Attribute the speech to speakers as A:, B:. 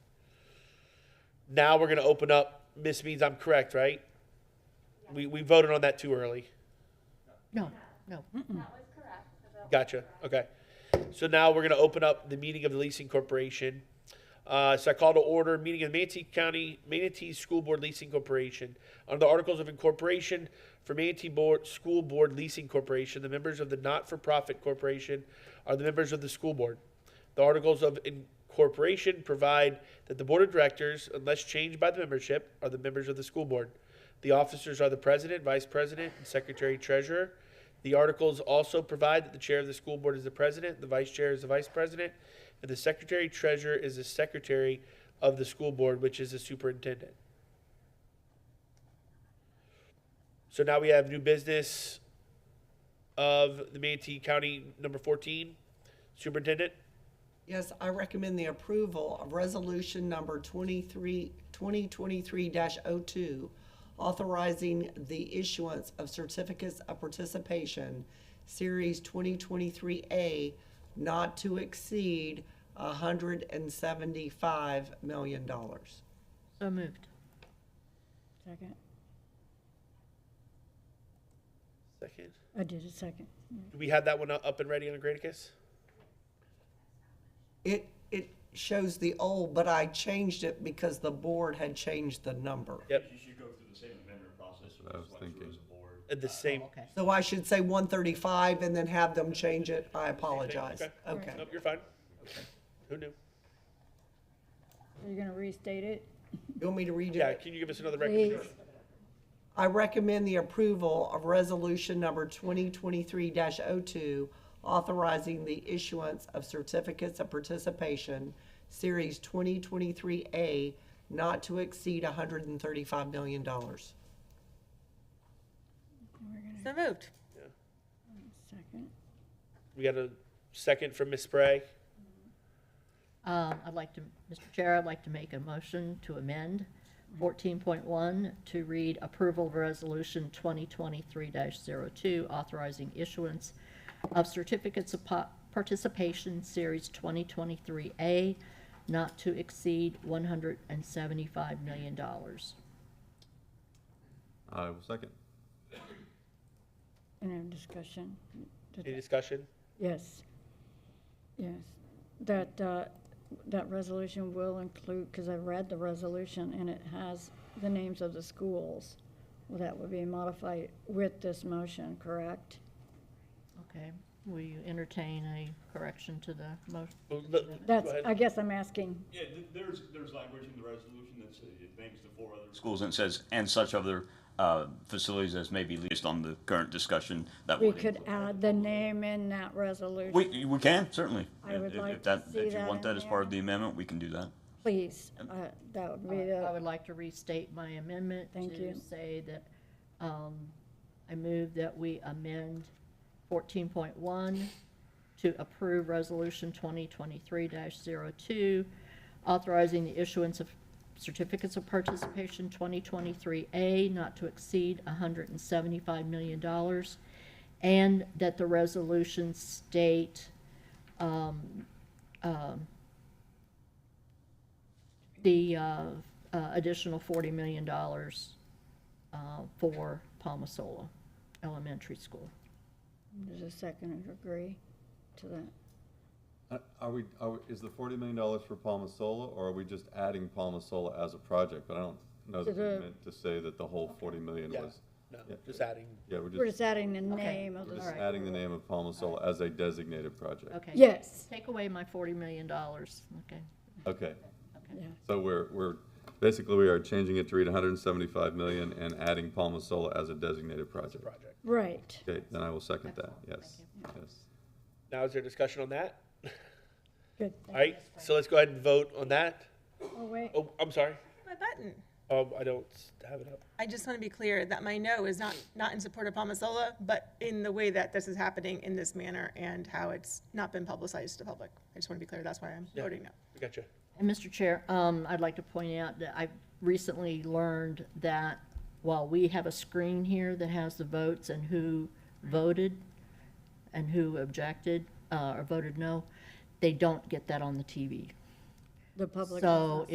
A: Now we're gonna open up, Miss Means, I'm correct, right? We, we voted on that too early.
B: No, no.
C: That was correct. The bill was
A: Gotcha. Okay. So now we're going to open up the meeting of the leasing corporation. Uh, so I call to order meeting of the Manatee County Manatee School Board Leasing Corporation. Under the Articles of Incorporation for Manatee Board School Board Leasing Corporation, the members of the not-for-profit corporation are the members of the school board. The Articles of Incorporation provide that the board of directors, unless changed by the membership, are the members of the school board. The officers are the president, vice president, and secretary treasurer. The articles also provide that the chair of the school board is the president, the vice chair is the vice president, and the secretary treasurer is the secretary of the school board, which is the superintendent. So now we have new business of the Manatee County number fourteen, superintendent.
D: Yes, I recommend the approval of resolution number 23, 2023-02, authorizing the issuance of certificates of participation, Series 2023A, not to exceed $175 million.
B: So moved.
E: Second.
A: Second.
E: I did a second.
A: Do we have that one up and ready on Granicus?
D: It, it shows the old, but I changed it because the board had changed the number.
F: You should go through the same amendment process, so
G: I was
F: just went through
G: thinking.
F: as a board.
A: At the same,
B: Okay.
D: So I should say 135 and then have them change it. I apologize.
A: Okay.
D: Okay.
A: nope, you're fine. Who knew?
E: You're gonna restate it?
D: You want me to redo
A: Yeah,
D: it?
A: can you give us another record?
E: Please.
D: I recommend the approval of resolution number 2023-02, authorizing the issuance of certificates of participation, Series 2023A, not to exceed $135 million.
B: So moved.
E: Second.
A: We got a second from Miss Spray.
B: Um, I'd like to, Mr. Chair, I'd like to make a motion to amend fourteen point one to read approval of resolution twenty twenty-three 2 authorizing issuance of certificates of po- participation series twenty twenty-three A not to exceed one hundred and seventy-five million dollars.
G: I will second.
E: And have discussion. Did-
A: Any discussion?
E: Yes. Yes. That, uh, that resolution will include, because I read the resolution and it has the names of the schools. Well, that would be modified with this motion, correct?
B: Okay, will you entertain a correction to the motion?
A: Well, look, go
E: That's,
A: ahead.
E: I guess I'm asking,
F: Yeah, th- there's, there's language in the resolution that says, it names the four other. Schools and says, and such other, uh, facilities as may be leased on the current discussion that
E: we
F: would
E: could
F: include.
E: add the name in that resolution.
F: We, we can, certainly.
E: I
F: If-
E: would
F: if- if
E: like to
F: that-
E: see
F: If you
E: that
F: want
E: in
F: that as
E: there.
F: part of the amendment, we can do that.
E: Please, uh, that would be
B: I I
E: the,
B: would like to restate my amendment
E: Thank
B: to
E: you.
B: say that um, I move that we amend 14.1 to approve Resolution 2023-02, authorizing the issuance of certificates of participation 2023A not to exceed $175 million, and that the resolution state the uh, uh, additional $40 million uh, for Palmasola Elementary School.
E: does a second agree to that?
G: Uh, Are we, are, we- is the forty million dollars for Palmasola, or are we just adding Palmasola as a project? But I don't know that we
E: Is it-
G: meant to say that the whole forty million
A: Yeah.
G: was,
A: No, just adding.
G: yeah, we're
E: We're
G: just,
E: just adding the name of
G: we're
E: the,
G: just
B: Alright.
G: adding the name of Palmasola as a designated project.
B: Okay.
E: yes,
B: Take away my $40 million. Okay.
G: Okay,
E: yeah,
G: so we're, we're, basically, we are changing it to read hundred and seventy-five million and adding Palmasola as a designated project.
A: Project.
E: right.
G: Okay, then I will second that, yes, yes.
A: Now, is there discussion on that?
E: Good.
A: All right, so let's go ahead and vote on that.
E: Oh, wait,
A: Oh, I'm sorry.
H: My button.
A: Um, I don't have it up.
H: I just want to be clear that my no is not, not in support of Palmasola, but in the way that this is happening in this manner and how it's not been publicized to the public. I just want to be clear, that's why I'm voting no.
A: I Gotcha.
B: And Mr. Chair, um, I'd like to point out that I've recently learned that while we have a screen here that has the votes and who voted and who objected, uh, or voted no, they don't get that on the TV.
E: the public.
B: So